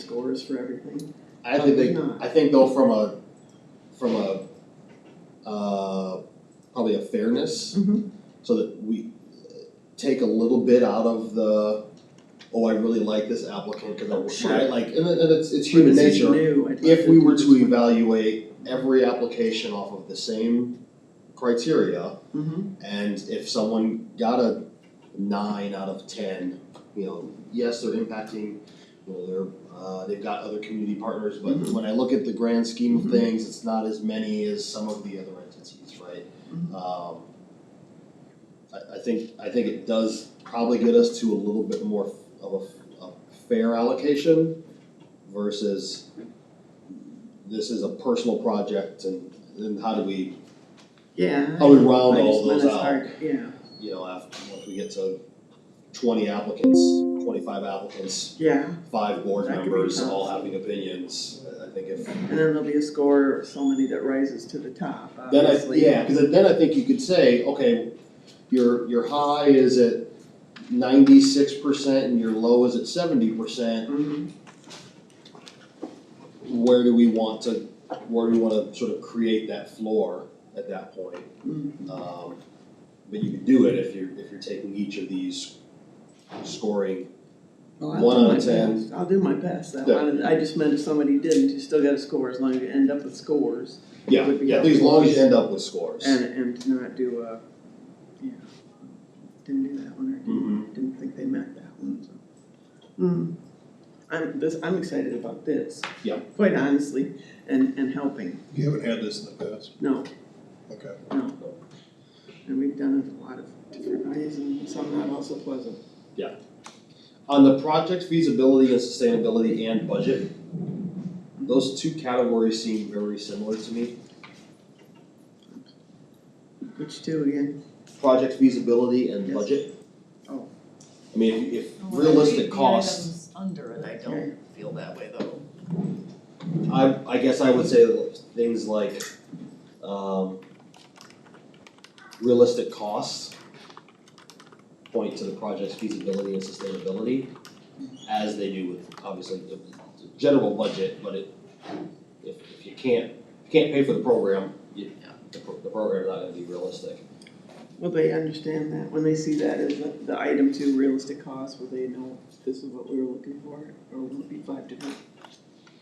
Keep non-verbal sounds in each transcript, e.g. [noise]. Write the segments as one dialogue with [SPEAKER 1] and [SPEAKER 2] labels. [SPEAKER 1] scores for everything.
[SPEAKER 2] I think they,
[SPEAKER 1] Probably not.
[SPEAKER 2] I think though from a, from a, uh, probably a fairness.
[SPEAKER 1] Mhm.
[SPEAKER 2] So that we take a little bit out of the, oh, I really like this applicant, cause I'm
[SPEAKER 1] Sure.
[SPEAKER 2] shy, like, and it- and it's, it's human
[SPEAKER 1] This is
[SPEAKER 2] nature.
[SPEAKER 1] new, I'd like
[SPEAKER 2] If we
[SPEAKER 1] do
[SPEAKER 2] were
[SPEAKER 1] this
[SPEAKER 2] to
[SPEAKER 1] one.
[SPEAKER 2] evaluate every application off of the same criteria,
[SPEAKER 1] Mhm.
[SPEAKER 2] and if someone got a nine out of ten, you know, yes, they're impacting, you know, they're, uh, they've got other community partners, but
[SPEAKER 1] Mhm.
[SPEAKER 2] when I look at the grand scheme
[SPEAKER 1] Mhm.
[SPEAKER 2] of things, it's not as many as some of the other entities, right?
[SPEAKER 1] Mhm.
[SPEAKER 2] Um, I, I think, I think it does probably get us to a little bit more of a, a fair allocation versus this is a personal project and, and how do we,
[SPEAKER 1] Yeah.
[SPEAKER 2] how do we round
[SPEAKER 1] I
[SPEAKER 2] all
[SPEAKER 1] just
[SPEAKER 2] those out?
[SPEAKER 1] meant as hard, yeah,
[SPEAKER 2] you know, after, once we get to twenty applicants, twenty-five applicants,
[SPEAKER 1] yeah,
[SPEAKER 2] five board
[SPEAKER 1] That could be
[SPEAKER 2] members
[SPEAKER 1] tough.
[SPEAKER 2] all having opinions, I I think if.
[SPEAKER 1] and then there'll be a score, so many that rises to the top,
[SPEAKER 2] Then I,
[SPEAKER 1] obviously.
[SPEAKER 2] yeah, cause then I think you could say, okay, your, your high is at ninety-six percent and your low is at seventy percent.
[SPEAKER 1] Mhm.
[SPEAKER 2] Where do we want to, where do we wanna sort of create that floor at that point?
[SPEAKER 1] Mhm.
[SPEAKER 2] Um, but you could do it if you're, if you're taking each of these scoring
[SPEAKER 1] Well, I'll
[SPEAKER 2] One
[SPEAKER 1] do
[SPEAKER 2] out
[SPEAKER 1] my
[SPEAKER 2] of ten.
[SPEAKER 1] best. I'll do my best, I
[SPEAKER 2] Yeah.
[SPEAKER 1] wanted, I just meant if somebody didn't, you still got a score, as long as you end up with scores,
[SPEAKER 2] Yeah,
[SPEAKER 1] would be
[SPEAKER 2] yeah,
[SPEAKER 1] helpful.
[SPEAKER 2] as long as you end up with scores.
[SPEAKER 1] and, and to not do a, yeah. Didn't do that one, or didn't
[SPEAKER 2] Mhm.
[SPEAKER 1] Didn't think they meant that one, so. Hmm, I'm, this, I'm excited about this.
[SPEAKER 2] Yeah.
[SPEAKER 1] Quite honestly, and, and helping,
[SPEAKER 3] You haven't had this in the past,
[SPEAKER 1] no,
[SPEAKER 3] okay.
[SPEAKER 1] no. And we've done it a lot of different ways and some not also pleasant.
[SPEAKER 2] On the project feasibility and sustainability and budget, those two categories seem very similar to me.
[SPEAKER 1] Which two again?
[SPEAKER 2] Project feasibility and
[SPEAKER 1] Yes.
[SPEAKER 2] budget.
[SPEAKER 1] Oh.
[SPEAKER 2] I mean, if- if
[SPEAKER 4] Oh, Well, I read
[SPEAKER 2] realistic
[SPEAKER 4] the
[SPEAKER 2] costs,
[SPEAKER 4] items Under it, I
[SPEAKER 1] Okay.
[SPEAKER 4] don't feel that way though.
[SPEAKER 2] I, I guess I would say things like, um, realistic costs point to the project's feasibility and sustainability, as they do with, obviously, the, the general budget, but it, if, if you can't, if you can't pay for the program, you, the, pro- the program's not gonna be realistic.
[SPEAKER 1] Will they understand that, when they see that as the, the item two realistic cost, will they know this is what we were looking for, or will it be five different?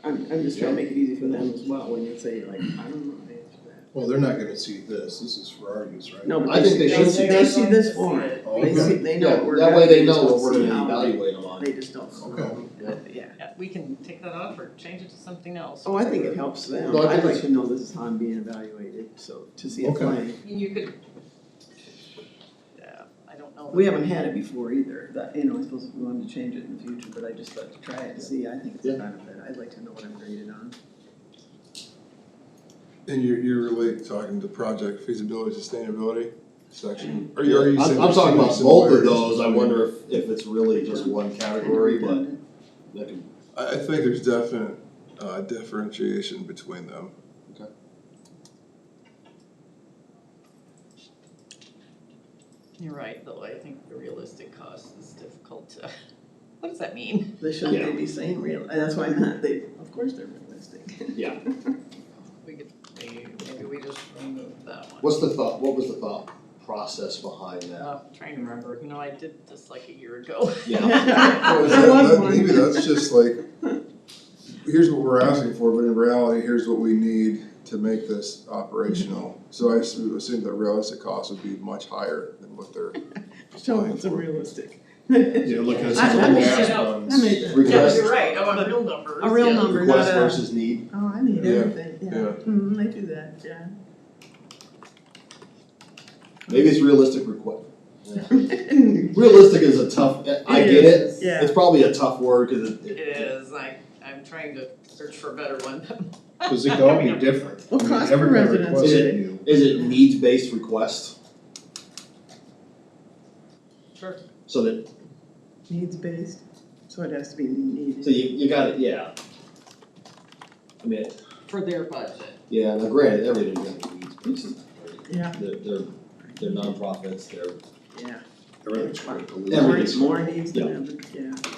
[SPEAKER 1] I'm, I'm just trying to make it easy for them as well, when you say like, I don't know how to answer that.
[SPEAKER 3] Well, they're not gonna see this, this is for our use, right?
[SPEAKER 1] No, but
[SPEAKER 2] I think they should see
[SPEAKER 1] They see this form.
[SPEAKER 3] Oh,
[SPEAKER 1] They see,
[SPEAKER 3] okay.
[SPEAKER 1] they know what we're.
[SPEAKER 2] That way
[SPEAKER 1] gonna-
[SPEAKER 2] they know
[SPEAKER 1] just
[SPEAKER 2] what we're
[SPEAKER 1] don't see
[SPEAKER 2] gonna
[SPEAKER 1] how they-
[SPEAKER 2] evaluate them on.
[SPEAKER 1] They just don't. see
[SPEAKER 3] Okay.
[SPEAKER 1] how they- Yeah.
[SPEAKER 4] Yeah, we can take that off or change it to something else.
[SPEAKER 1] Oh, I think it helps them.
[SPEAKER 2] No, I think
[SPEAKER 1] I'd like
[SPEAKER 2] it's-
[SPEAKER 1] to know this is how I'm being evaluated, so to see it
[SPEAKER 3] Okay.
[SPEAKER 1] playing.
[SPEAKER 4] You could. Yeah, I don't know.
[SPEAKER 1] We haven't had it before either, that, you know, I suppose if we wanted to change it in the future, but I just thought to try it and see, I think it's a
[SPEAKER 2] Yeah.
[SPEAKER 1] benefit. I'd like to know what I'm graded on.
[SPEAKER 3] And you're, you're really talking to project feasibility, sustainability section, or you, are you
[SPEAKER 2] I'm,
[SPEAKER 3] saying?
[SPEAKER 2] I'm
[SPEAKER 3] there's
[SPEAKER 2] talking
[SPEAKER 3] so many
[SPEAKER 2] about both of
[SPEAKER 3] similarities?
[SPEAKER 2] those, I wonder if, if it's really just one category, but that could,
[SPEAKER 3] I, I think there's definite, uh, differentiation between them.
[SPEAKER 2] Okay.
[SPEAKER 4] You're right, though, I think the realistic cost is difficult to, [laughs] what does that mean?
[SPEAKER 1] They shouldn't they
[SPEAKER 2] Yeah.
[SPEAKER 1] be saying real, and that's why I'm not, they, of course they're realistic.
[SPEAKER 2] [laughs]
[SPEAKER 1] [laughs]
[SPEAKER 2] yeah.
[SPEAKER 4] We could, maybe, maybe we just remove that one.
[SPEAKER 2] What's the thought, what was the thought process behind that?
[SPEAKER 4] Uh, trying to remember, you know, I did this like a
[SPEAKER 2] [laughs]
[SPEAKER 4] year ago.
[SPEAKER 2] Yeah.
[SPEAKER 3] Well, is
[SPEAKER 1] There
[SPEAKER 3] that-
[SPEAKER 1] was
[SPEAKER 3] that-
[SPEAKER 1] one.
[SPEAKER 3] Maybe that's just like, here's what we're asking for, but in reality, here's what we need to make this operational. So I assume assume that realistic cost would be much higher than what they're
[SPEAKER 1] Show them it's unrealistic.
[SPEAKER 5] Yeah, look at
[SPEAKER 1] I-
[SPEAKER 5] some of
[SPEAKER 1] I
[SPEAKER 5] the
[SPEAKER 1] made
[SPEAKER 4] it
[SPEAKER 5] last
[SPEAKER 4] up.
[SPEAKER 5] ones.
[SPEAKER 1] I made that.
[SPEAKER 4] [laughs] Yeah,
[SPEAKER 2] Request,
[SPEAKER 4] you're right, I want real numbers.
[SPEAKER 1] A real
[SPEAKER 4] yeah.
[SPEAKER 1] number, not
[SPEAKER 2] request
[SPEAKER 1] a.
[SPEAKER 2] versus need,
[SPEAKER 1] [laughs] Oh, I need
[SPEAKER 3] Yeah.
[SPEAKER 1] everything, yeah.
[SPEAKER 3] Yeah.
[SPEAKER 1] Mm, they do that, yeah.
[SPEAKER 2] [laughs] maybe it's realistic request.
[SPEAKER 1] I
[SPEAKER 2] Realistic is a tough, I get it, it's probably a tough word, cause it,
[SPEAKER 4] It is, I, I'm trying to search for a better one.
[SPEAKER 5] Cause it could all be different.
[SPEAKER 1] Well,
[SPEAKER 5] I mean,
[SPEAKER 1] cost per
[SPEAKER 5] everybody
[SPEAKER 1] residence
[SPEAKER 5] requests
[SPEAKER 2] is-
[SPEAKER 5] you.
[SPEAKER 2] Is it needs-based request,
[SPEAKER 4] Sure.
[SPEAKER 2] so that,
[SPEAKER 1] Needs based, so it has to be needed.
[SPEAKER 2] so you, you gotta, yeah. I mean,
[SPEAKER 4] For their budget.
[SPEAKER 2] yeah, now granted, everything's gonna be needs-based, right?
[SPEAKER 1] Yeah.
[SPEAKER 2] they're, they're, they're nonprofits, they're,
[SPEAKER 1] Yeah.
[SPEAKER 2] they're.
[SPEAKER 3] trying to
[SPEAKER 2] Everything's-
[SPEAKER 1] More needs
[SPEAKER 2] yeah.
[SPEAKER 1] than ever, yeah.